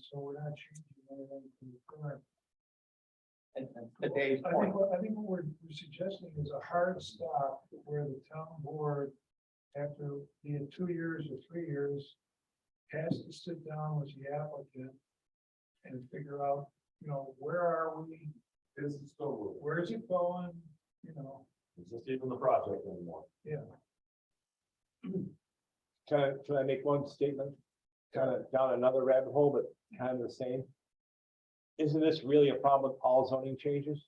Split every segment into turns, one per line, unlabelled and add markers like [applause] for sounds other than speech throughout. so we're not changing anything from the current.
And and to Dave's
I
point,
think, what- I think what we're we're suggesting is a hard stop where the town board, after being two years or three years, has to sit down with the applicant and figure out, you know, where are we,
This is still moving.
where's it going, you know?
Is this even the project anymore?
[clears throat] Can I, can I make one statement? Kind of down another rabbit hole, but kind of the same. Isn't this really a problem with all zoning changes?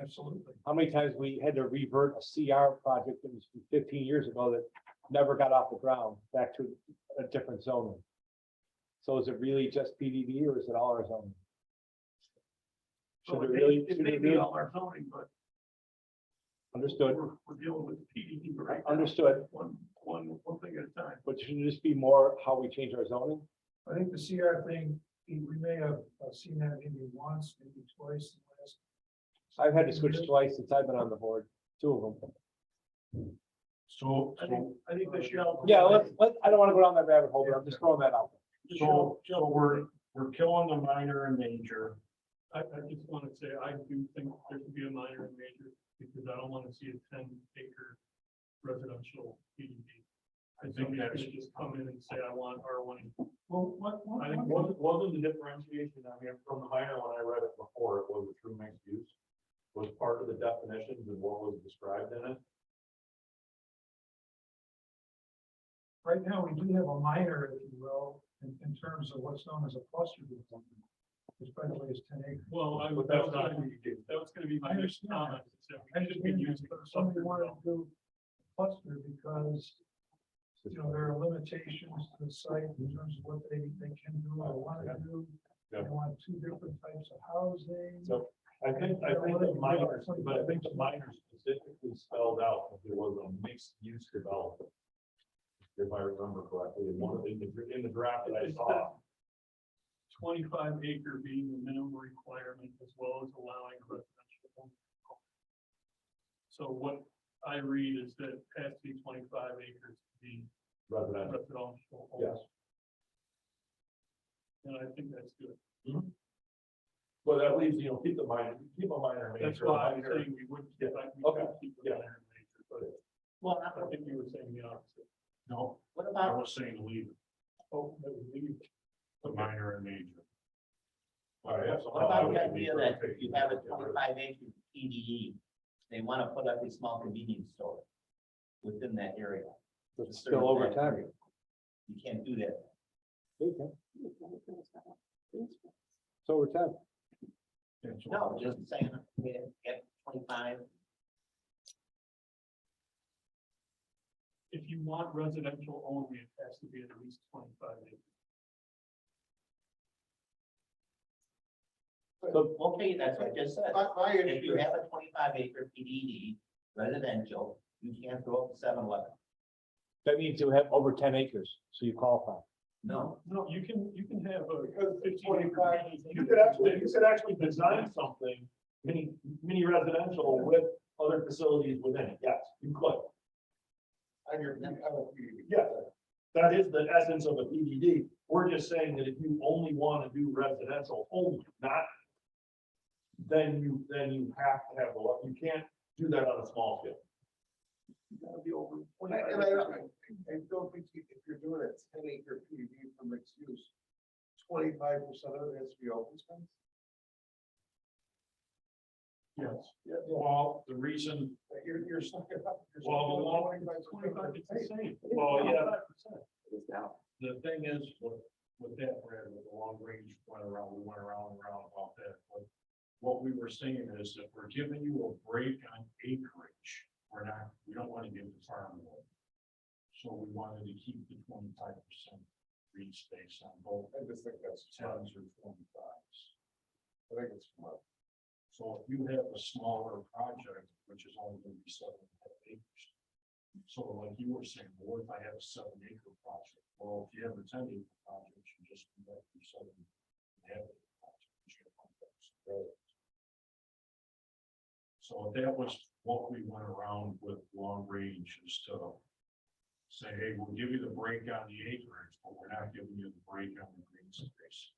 Absolutely.
How many times we had to revert a CR project that was from fifteen years ago that never got off the ground back to a different zoning? So is it really just PDD or is it all our zoning?
So
Should
it
it
may-
really,
It
should
may
it
be
really,
all our zoning, but
understood,
We're, we're dealing with PDD E, right now.
understood,
One, one, one thing at a time.
but should it just be more how we change our zoning?
I think the CR thing, we we may have uh, seen that maybe once, maybe twice in the last.
I've had to switch twice since I've been on the board, two of them.
So,
I think, I think the shell.
Yeah, let's, let, I don't wanna go down that rabbit hole, but I'm just throwing that out.
the shell-
so, so we're, we're killing the minor and major.
I, I just want to say, I do think there should be a minor and major, because I don't want to see a ten acre residential PDD.
I think
Somebody's
that's,
gonna just come in and say, I want R one.
Well, what, what,
I think
what-
wasn't, wasn't the differentiation, I mean, from the minor, when I read it before, it was a true mixed use. Was part of the definitions and what was described in it.
right now, we do have a minor, if you will, in, in terms of what's known as a cluster development. Which by the way is ten acres.
Well, I,
But
that
that's
was
not what
gonna be,
you do.
that was gonna be
I
my next
understand
comment, is that
I
we should be
understand that,
using.
but if Somebody
cluster
wanted to
development.
do cluster because, you know, there are limitations to the site in terms of what they, they can do or want to do. They
Yeah.
want two different types of housing.
So I think, I think the minor, but I think the minor specifically spelled out that there was a mixed use development. If I remember correctly, in one of the, in the draft that I saw,
Twenty-five acre being the minimum requirement as well as allowing residential. home. So what I read is that it has to be twenty-five acres to be
residential,
residential. home.
yes.
And I think that's good.
But that leaves, you know, keep the minor, keep a minor. major,
That's why I'm
minor.
saying we wouldn't, get back- we
Okay,
could keep the
yeah.
minor and major, but. Well, I think you were saying the opposite.
No,
what
I
about,
was saying leave
Oh, that would leave.
the minor and major. All right. that's all
what
I
about
would
the
be
idea
for
that
taking
you have a
that.
twenty-five acre PDE? They wanna put up a small convenience store within that area.
It's still over time.
You can't do that.
It's over time.
No, just saying, get, get twenty-five.
If you want residential only, it has to be at least twenty-five acres.
So, okay, that's what I just said.
My, my
If
issue
you
is,
have a twenty-five acre PDD residential, you can't go up to seven eleven.
That means you have over ten acres, so you qualify.
No,
No, you can, you can have a.
Because it's
15 acre
25
PDD.
You could actually, you could actually design something, mini, mini residential with other facilities within it, yes, you could.
on your, you have a PDD.
Yeah, that is the essence of a PDD. We're just saying that if you only want to do residential only, not. Then you, then you have to have the, lot. you can't do that on a small scale.
And I, and I, I- I don't think you- if you're doing a ten acre PDD for mixed use, twenty-five percent of it has to be open space.
Yes.
Well, the reason
Like, You're, you're stuck it up. you're stuck
Well,
it
the
up 25%.
law-
Twenty-five, it's the same.
Well, yeah.
It's now.
The thing is, with, with that, Brad, with the long range went around, we went around and around about that, but. What we were saying is that we're giving you a break on acreage, we're not, we don't wanna give the farm away. So we wanted to keep the twenty-five percent green space on both
I just think that's,
tens or twenty-fives.
I think it's smart.
So if you have a smaller project, which is only gonna be seven and a half acres. So like you were saying, well, what if I have a seven acre project? Well, if you have a ten acre project, you just do that for seven and a half acre project. which you have on those roads. So that was what we went around with long range instead of say, hey, we'll give you the break on the acreage, but we're not giving you the break on the green space.